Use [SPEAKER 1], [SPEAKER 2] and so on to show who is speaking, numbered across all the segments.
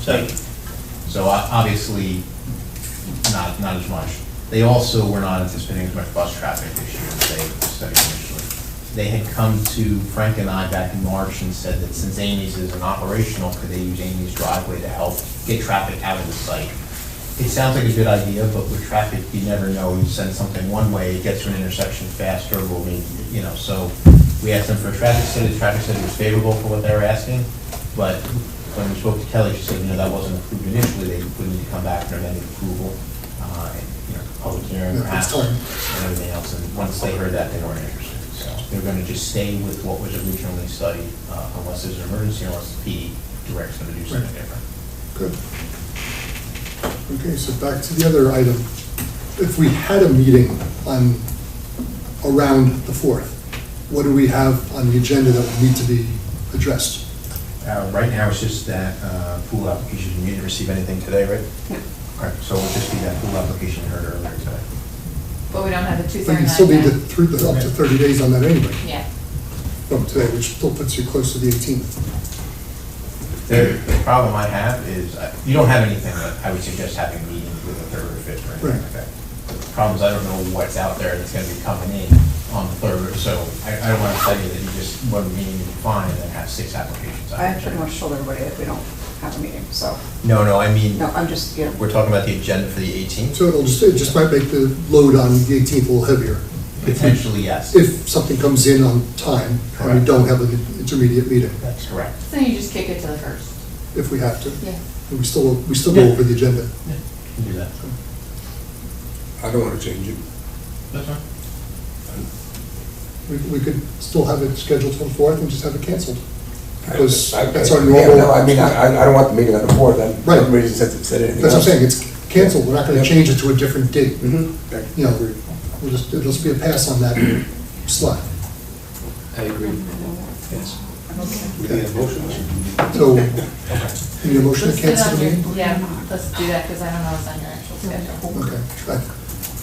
[SPEAKER 1] Second.
[SPEAKER 2] So uh, obviously, not, not as much. They also were not anticipating as much bus traffic this year as they studied initially. They had come to Frank and I back in March and said that since Amy's isn't operational, could they use Amy's driveway to help get traffic out of the site? It sounds like a good idea, but with traffic, you never know. You send something one way, it gets to an intersection faster, or we, you know, so we asked them for a traffic study. The traffic study was favorable for what they were asking, but when we spoke to Kelly, she said, you know, that wasn't approved initially. They would need to come back for amended approval, uh, and, you know, public hearing
[SPEAKER 3] Yeah,
[SPEAKER 2] perhaps,
[SPEAKER 3] it's time.
[SPEAKER 2] and everything else. And once they heard that, they weren't interested. So they're going to just stay with what was originally studied, uh, unless there's an emergency, unless the PD directs them to do something
[SPEAKER 3] Right.
[SPEAKER 2] different.
[SPEAKER 3] Good. Okay, so back to the other item. If we had a meeting on, around the 4th, what do we have on the agenda that would need to be addressed?
[SPEAKER 2] Uh, Right now, it's just that uh, pool application, you didn't receive anything today, right? All right, so it'll just be that pool application you heard earlier today.
[SPEAKER 4] But we don't have the two
[SPEAKER 3] But
[SPEAKER 4] thirty-nine
[SPEAKER 3] you
[SPEAKER 4] yet.
[SPEAKER 3] still need to, through the- up to 30 days on that anyway,
[SPEAKER 4] Yeah,
[SPEAKER 3] from today, which still puts you close to the 18th.
[SPEAKER 2] The the problem I have is, uh, you don't have anything that I would suggest having meetings with the third or fifth or anything like
[SPEAKER 3] Right.
[SPEAKER 2] that. The problem is, I don't know what's out there that's gonna be coming in on the third, so I I don't want to tell you that you just, one meeting you find and then have six applications. out
[SPEAKER 5] I
[SPEAKER 2] there.
[SPEAKER 5] pretty much told everybody that we don't have a meeting, so,
[SPEAKER 6] No, no, I mean,
[SPEAKER 5] no, I'm just, you know,
[SPEAKER 6] we're talking about the agenda for the 18th?
[SPEAKER 3] So it'll just, it just might make the load on the 18th a little heavier.
[SPEAKER 2] Potentially, yes.
[SPEAKER 3] If something comes in on time and we
[SPEAKER 2] Correct.
[SPEAKER 3] don't have an intermediate meeting,
[SPEAKER 2] That's correct.
[SPEAKER 4] so you just kick it to the first.
[SPEAKER 3] if we have to.
[SPEAKER 4] Yeah.
[SPEAKER 3] And we still, we still go over the agenda.
[SPEAKER 2] You can do that.
[SPEAKER 7] I don't want to change it.
[SPEAKER 2] That's fine.
[SPEAKER 3] We, we could still have it scheduled for the fourth and just have it canceled. Because
[SPEAKER 7] I- I-
[SPEAKER 3] that's our
[SPEAKER 7] yeah,
[SPEAKER 3] normal-
[SPEAKER 7] No, I mean, I, I- I don't want the meeting on the fourth, I'm,
[SPEAKER 3] Right.
[SPEAKER 7] I'm ready to set, set anything
[SPEAKER 3] That's what I'm
[SPEAKER 7] else.
[SPEAKER 3] saying, it's canceled, we're not gonna
[SPEAKER 7] Yeah.
[SPEAKER 3] change it to a different date.
[SPEAKER 7] Mhm.
[SPEAKER 3] You know, we'll just, it'll just be a pass on that slot.
[SPEAKER 8] I agree. Yes.
[SPEAKER 7] We need a motion.
[SPEAKER 3] So, need a motion to
[SPEAKER 4] Let's sit
[SPEAKER 3] cancel
[SPEAKER 4] on
[SPEAKER 3] the
[SPEAKER 4] your,
[SPEAKER 3] meeting?
[SPEAKER 4] yeah, let's do that, because I don't know what's on your actual schedule.
[SPEAKER 3] Okay. I-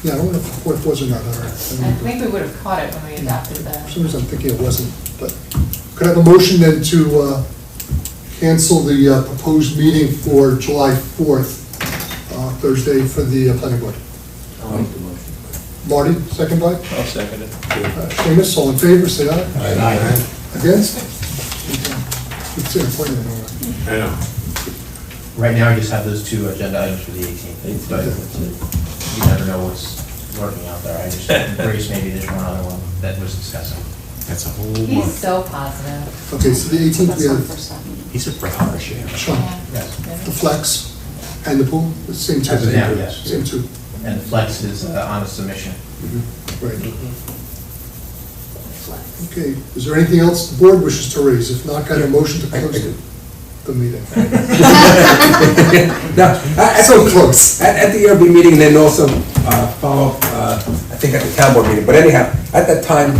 [SPEAKER 3] Yeah, I don't know if the fourth was or not, all right.
[SPEAKER 4] I think we would have caught it when we adopted
[SPEAKER 3] For
[SPEAKER 4] the,
[SPEAKER 3] some reason, I'm thinking it wasn't, but could I have a motion then to uh, cancel the uh, proposed meeting for July 4th, uh, Thursday, for the uh, planning board?
[SPEAKER 8] I'll make the motion.
[SPEAKER 3] Marty, second by?
[SPEAKER 8] I'll second it.
[SPEAKER 3] Uh, Seamus, all in favor, say aye. Against? It's an appointment, all right.
[SPEAKER 7] I know.
[SPEAKER 2] Right now, I just have those two agenda items for the 18th, but you never know what's lurking out there. I just, Grace, maybe there's one other one that was discussing.
[SPEAKER 6] That's a whole
[SPEAKER 4] he's so positive.
[SPEAKER 3] Okay, so the 18th, we
[SPEAKER 5] that's not the
[SPEAKER 3] have
[SPEAKER 5] first time.
[SPEAKER 6] He's a breath of fresh air.
[SPEAKER 3] Sean,
[SPEAKER 2] Yes.
[SPEAKER 3] the flex and the pool, the same two.
[SPEAKER 2] As of now, yes.
[SPEAKER 3] Same two,
[SPEAKER 2] And Flex is uh, on a submission.
[SPEAKER 3] right. Okay, is there anything else the board wishes to raise? If not, kind of motion to
[SPEAKER 7] I- I
[SPEAKER 3] close
[SPEAKER 7] do.
[SPEAKER 3] the meeting.
[SPEAKER 7] No, uh, at, at
[SPEAKER 3] So
[SPEAKER 7] the-
[SPEAKER 3] close.
[SPEAKER 7] At, at the ERB meeting, and then also, uh, follow, up, uh, I think at the town board meeting, but anyhow, at that time,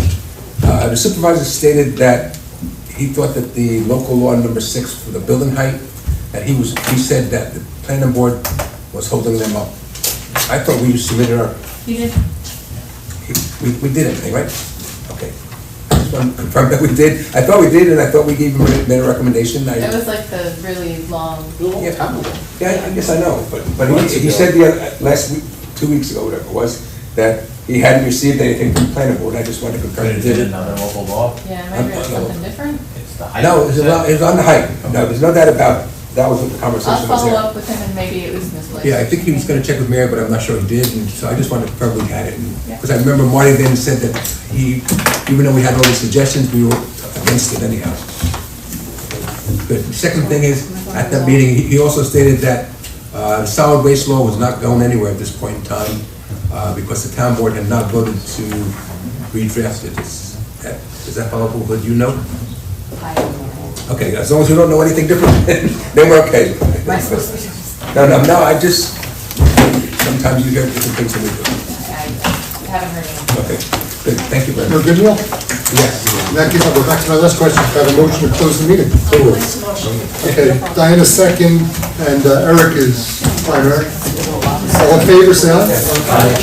[SPEAKER 7] uh, the supervisor stated that he thought that the local law number six for the building height, that he was, he said that the planning board was holding them up. I thought we submitted our
[SPEAKER 4] You just,
[SPEAKER 7] We, we did everything, right? Okay. I just want to confirm that we did. I thought we did, and I thought we gave him a made a recommendation. I-
[SPEAKER 4] it was like the really long,
[SPEAKER 7] Yeah, probably. Yeah, I guess I know, but, but he, he said the, other- last week, two weeks ago, whatever it was, that he hadn't received anything from the planning board. I just wanted to confirm he
[SPEAKER 2] Is it
[SPEAKER 7] did.
[SPEAKER 2] another local law?
[SPEAKER 4] yeah, maybe it was something different.
[SPEAKER 2] It's the height.
[SPEAKER 7] No, it was, about- it was on the height. No, there's no doubt about it. That was what the
[SPEAKER 4] I'll
[SPEAKER 7] conversation was
[SPEAKER 4] follow
[SPEAKER 7] there.
[SPEAKER 4] up with him and maybe it was misplaced.
[SPEAKER 7] Yeah, I think he was gonna check with Mary, but I'm not sure he did, and so I just wanted to probably had it.
[SPEAKER 4] Yeah.
[SPEAKER 7] Because I remember Marty then said that he, even though we had all these suggestions, we were against it anyhow. Good. The Second thing is, at that meeting, he- he also stated that uh, solid waste law was not going anywhere at this point in time, uh, because the town board had not voted to redraft it. Is that- is that followable, but you know?
[SPEAKER 4] I don't know.
[SPEAKER 7] Okay, as long as we don't know anything different, then we're okay.
[SPEAKER 4] Am I supposed to do this?
[SPEAKER 7] No, no, no, I just, sometimes you hear different things than we do.
[SPEAKER 4] I haven't heard anything.
[SPEAKER 7] Okay, good, thank you very
[SPEAKER 3] No
[SPEAKER 7] much.
[SPEAKER 3] good deal? In that case, I'll go back to my last question, Can I have a motion to close the meeting. Okay, Diana second, and uh, Eric is primary. All in favor, say aye.